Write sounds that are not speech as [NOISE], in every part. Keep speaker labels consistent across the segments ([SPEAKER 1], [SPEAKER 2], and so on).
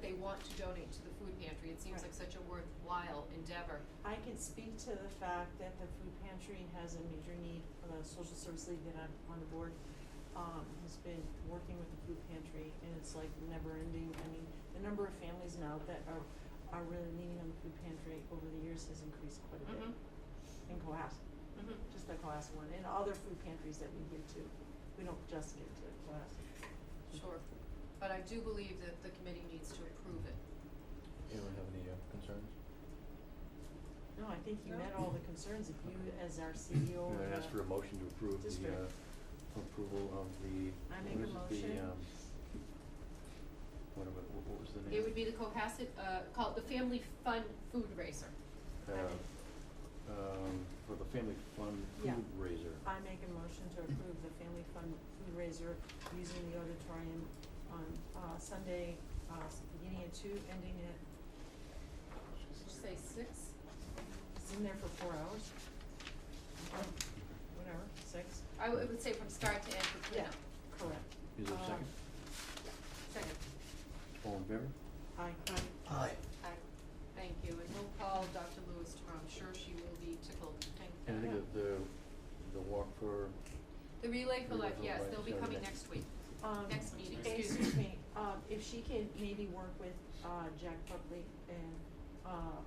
[SPEAKER 1] they want to donate to the food pantry, it seems
[SPEAKER 2] Right.
[SPEAKER 1] like such a worthwhile endeavor.
[SPEAKER 2] I can speak to the fact that the food pantry has a major need, the social service league that I'm on the board, um, has been working with the food pantry, and it's like never ending, I mean, the number of families now that are, are really leaning on the food pantry over the years has increased quite a bit.
[SPEAKER 1] Mhm.
[SPEAKER 2] In Cohasset,
[SPEAKER 1] Mhm.
[SPEAKER 2] just the Cohasset one, and other food pantries that we give to, we don't just give to Cohasset.
[SPEAKER 1] Sure, but I do believe that the committee needs to approve it.
[SPEAKER 3] Anyone have any uh, concerns?
[SPEAKER 2] No, I think you
[SPEAKER 1] No?
[SPEAKER 2] met all the concerns, if you as our E CEO or
[SPEAKER 3] May I ask for a
[SPEAKER 2] the-
[SPEAKER 3] motion to approve the,
[SPEAKER 2] district.
[SPEAKER 3] uh, approval of the,
[SPEAKER 2] I
[SPEAKER 3] what
[SPEAKER 2] make a
[SPEAKER 3] was it, the,
[SPEAKER 2] motion.
[SPEAKER 3] um, what, about- what- what was the name?
[SPEAKER 1] It would be the Cohasset, uh, called the Family Fun Food Racer.
[SPEAKER 3] Uh, um, for the family fund
[SPEAKER 2] Yeah.
[SPEAKER 3] fundraiser.
[SPEAKER 2] I make a motion to approve the family fund fundraiser using the auditorium on, uh, Sunday, uh, beginning at two, ending at,
[SPEAKER 1] Did you say six?
[SPEAKER 2] it's in there for four hours. Or Whatever, six,
[SPEAKER 1] I would, I would say from start to end for
[SPEAKER 2] yeah,
[SPEAKER 1] cleanup.
[SPEAKER 2] correct.
[SPEAKER 3] Is there a
[SPEAKER 2] Um,
[SPEAKER 3] second?
[SPEAKER 1] Second.
[SPEAKER 3] All in favor?
[SPEAKER 2] Aye.
[SPEAKER 3] Aye.
[SPEAKER 1] Aye. Thank you, and we'll call Dr. Lewis tomorrow, I'm sure she will be tickled. Thank
[SPEAKER 3] And I think
[SPEAKER 1] you.
[SPEAKER 3] that the, the walk for,
[SPEAKER 1] The Relay for
[SPEAKER 3] Relay
[SPEAKER 1] Life,
[SPEAKER 3] for
[SPEAKER 1] yes,
[SPEAKER 3] Life
[SPEAKER 1] they'll
[SPEAKER 3] is
[SPEAKER 1] be
[SPEAKER 3] our
[SPEAKER 1] coming
[SPEAKER 3] next-
[SPEAKER 1] next week.
[SPEAKER 2] Um,
[SPEAKER 1] Next meeting, excuse
[SPEAKER 2] excuse me, um, if she can maybe work with, uh, Jack Buckley and, uh,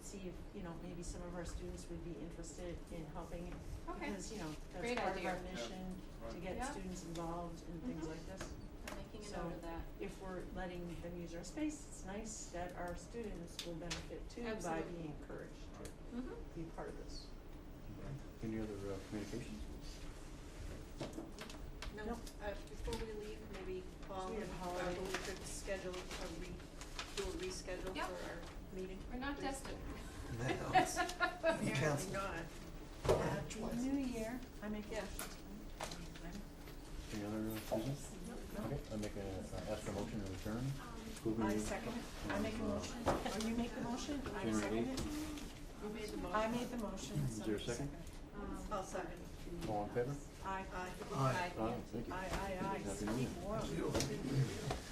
[SPEAKER 2] see if, you know, maybe some of our students would be interested in helping.
[SPEAKER 1] Okay.
[SPEAKER 2] Because, you know, that's
[SPEAKER 1] Great
[SPEAKER 2] part of our
[SPEAKER 1] idea.
[SPEAKER 4] Yeah,
[SPEAKER 2] mission, to
[SPEAKER 4] right.
[SPEAKER 2] get
[SPEAKER 1] Yeah.
[SPEAKER 2] students involved in things
[SPEAKER 1] Mhm.
[SPEAKER 2] like this.
[SPEAKER 1] I'm making a
[SPEAKER 2] So-
[SPEAKER 1] note of that.
[SPEAKER 2] If we're letting them use our space, it's nice that our students will benefit too by
[SPEAKER 1] Absolutely.
[SPEAKER 2] being encouraged to
[SPEAKER 1] Mm-hmm.
[SPEAKER 2] be part of this.
[SPEAKER 3] any other uh, communications?
[SPEAKER 5] No,
[SPEAKER 2] No.
[SPEAKER 5] uh, before we leave, maybe Paul,
[SPEAKER 2] We have
[SPEAKER 5] and
[SPEAKER 2] holiday.
[SPEAKER 5] Barbara, we could schedule a re, do a reschedule
[SPEAKER 1] Yep.
[SPEAKER 5] for our meeting.
[SPEAKER 1] We're not tested. [LAUGHS]
[SPEAKER 5] Apparently
[SPEAKER 6] Cancel.
[SPEAKER 5] not.
[SPEAKER 2] New year, I make
[SPEAKER 5] Yeah.
[SPEAKER 2] it.
[SPEAKER 3] Any other
[SPEAKER 2] Oh,
[SPEAKER 3] uh, business? Okay, I make a, uh, ask for a motion to adjourn. Approve
[SPEAKER 2] Um, I
[SPEAKER 3] the-
[SPEAKER 2] second it, I make a
[SPEAKER 3] Um,
[SPEAKER 2] motion, or you make the motion, I
[SPEAKER 3] January
[SPEAKER 2] second it.
[SPEAKER 3] eighth.
[SPEAKER 5] You made the motion.
[SPEAKER 2] I made the motion,
[SPEAKER 3] Is
[SPEAKER 2] so. Um,
[SPEAKER 3] there a second?
[SPEAKER 5] I'll second.
[SPEAKER 3] All in favor?
[SPEAKER 2] I,
[SPEAKER 5] Um, uh, Aye.
[SPEAKER 6] Aye.
[SPEAKER 3] Aye, thank you.
[SPEAKER 2] I, I, I,
[SPEAKER 3] Happy New
[SPEAKER 2] speak
[SPEAKER 3] Year.
[SPEAKER 2] warm.
[SPEAKER 6] Thank you.